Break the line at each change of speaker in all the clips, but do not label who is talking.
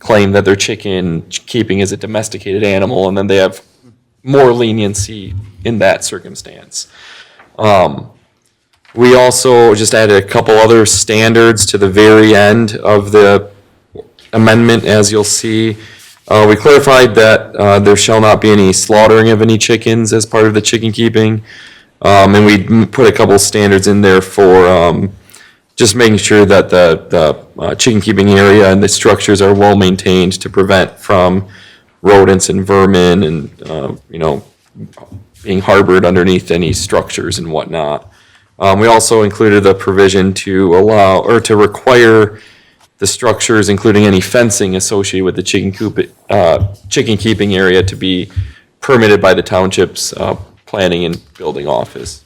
claim that their chicken keeping is a domesticated animal, and then they have more leniency in that circumstance. Um, We also just added a couple other standards to the very end of the amendment, as you'll see. Uh, we clarified that, uh, there shall not be any slaughtering of any chickens as part of the chicken keeping. Um, and we m- put a couple standards in there for, um, just making sure that the, the uh, chicken keeping area and the structures are well maintained to prevent from rodents and vermin and, uh, you know, being harbored underneath any structures and whatnot. Um, we also included the provision to allow, or to require the structures, including any fencing associated with the chicken coop, uh, chicken keeping area to be permitted by the township's, uh, planning and building office.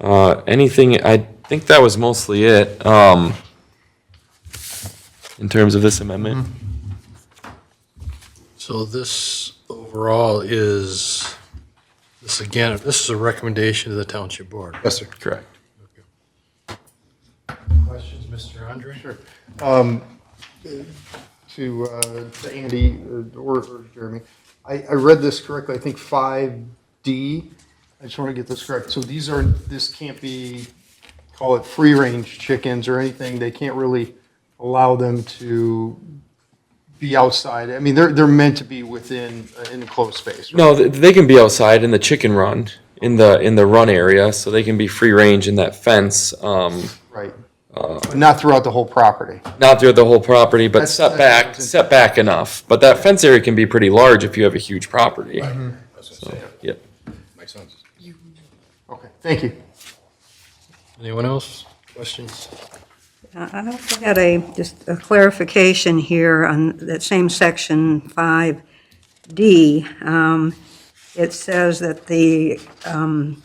Uh, anything, I think that was mostly it, um, in terms of this amendment.
Mm-hmm.
So this overall is, this again, this is a recommendation to the township board.
Yes, sir.
Correct.
Questions, Mr. Andre? Sure.
Um, To, uh, to Andy or- or or Jeremy, I, I read this correctly, I think five D, I just want to get this correct. So these are, this can't be, call it free range chickens or anything, they can't really allow them to be outside. I mean, they're, they're meant to be within an enclosed space. right?
No, th- they can be outside in the chicken run, in the, in the run area, so they can be free range in that fence, um,
Right.
Uh.
But Not throughout the whole property.
not throughout the whole property, but
That's-
set
that's-
back, set back enough. But that fence area can be pretty large if you have a huge property. So, Yep.
Okay, thank you.
Anyone else? Questions?
I also had a, just a clarification here on that same section 5D. Um, It says that the, um,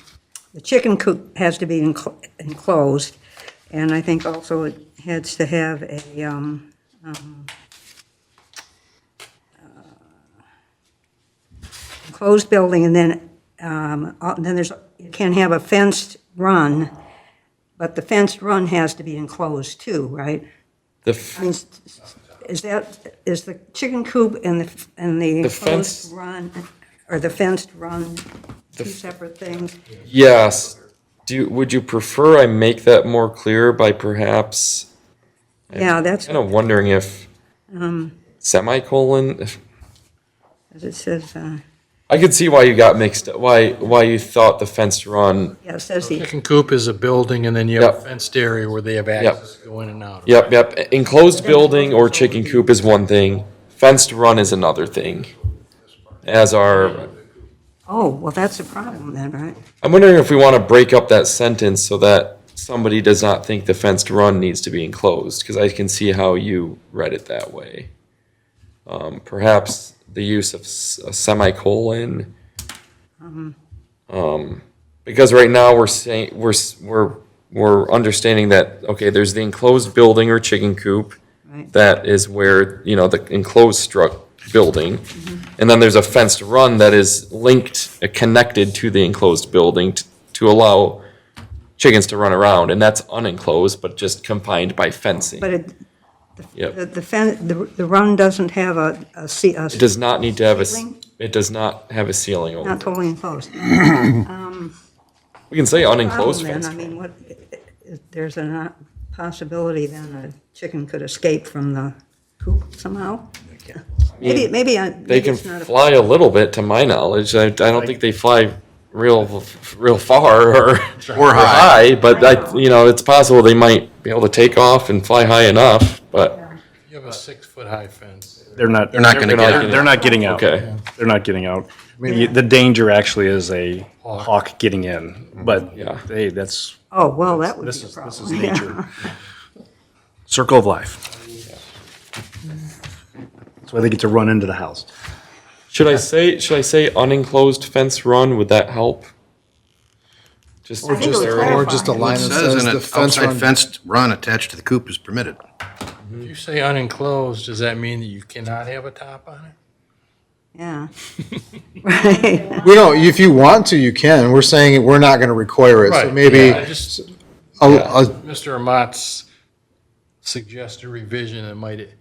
the chicken coop has to be enclo- enclosed, and I think also it has to have a, um, um, uh, enclosed building, and then, um, uh, then there's, you can have a fenced run, but the fenced run has to be enclosed too, right?
The,
I
f-
mean, s- s- is that, is the chicken coop and the, and the
The fence-
enclosed run, or the fenced run, two
f-
separate things?
yes. Do, you- would you prefer I make that more clear by perhaps,
Yeah, that's,
kind of wondering if semicolon, if-
as it says, uh,
I could see why you got mixed, up. why, why you thought the fenced run
yeah, it says the,
Chicken coop is a building, and then you have a
Yep.
fenced area where they have access to go in and out.
Yep, yep. Enclosed building or chicken coop is one thing. Fenced run is another thing. As our,
oh, well, that's a problem then, right?
I'm wondering if we want to break up that sentence so that somebody does not think the fenced run needs to be enclosed, because I can see how you read it that way. Um, perhaps the use of s- a semicolon. Um,
Mm-hmm.
because right now we're saying, we're, s- we're, we're understanding that, okay, there's the enclosed building or chicken coop.
Right.
That is where, you know, the enclosed struck building.
Mm-hmm.
And then there's a fenced run that is linked, uh, connected to the enclosed building t- to allow chickens to run around, and that's unenclosed, but just confined by fencing.
But it,
Yep.
the, the fen the, the run doesn't have a, a, se- a,
It does not need to have a, s-
Ceiling?
it does not have a ceiling over
not
it.
totally enclosed.
We can say unenclosed
Problem
fence.
Then, I mean, what, if there's a not- possibility then a chicken could escape from the coop somehow? Maybe, maybe I,
They
maybe
can
it's not a
fly a little bit, to my knowledge. I, I don't think they fly real, real far or. Or high. But I, you know, it's possible they might be able to take off and fly high enough, but,
You have a six-foot-high fence.
They're not.
They're not gonna
get
they're-
out.
They're not getting out.
okay.
They're not getting out. The the danger actually is a hawk getting in, but
Yeah.
hey, that's,
Oh, well, that would be
this
a
is,
problem.
this is nature. Circle of life. So they get to run into the house.
Should I say, should I say unenclosed fence run? Would that help? Just,
I think it would
Or just a
clarify.
line that says
in
the
it,
fence
outside
run.
fenced run attached to the coop is permitted.
If you say unenclosed, does that mean that you cannot have a top on it?
Yeah. Right.
We don't, if you want to, you can. We're saying we're not going to require it. So
Right,
maybe
I just-
a- a-
Mr. Amat's suggested revision, it might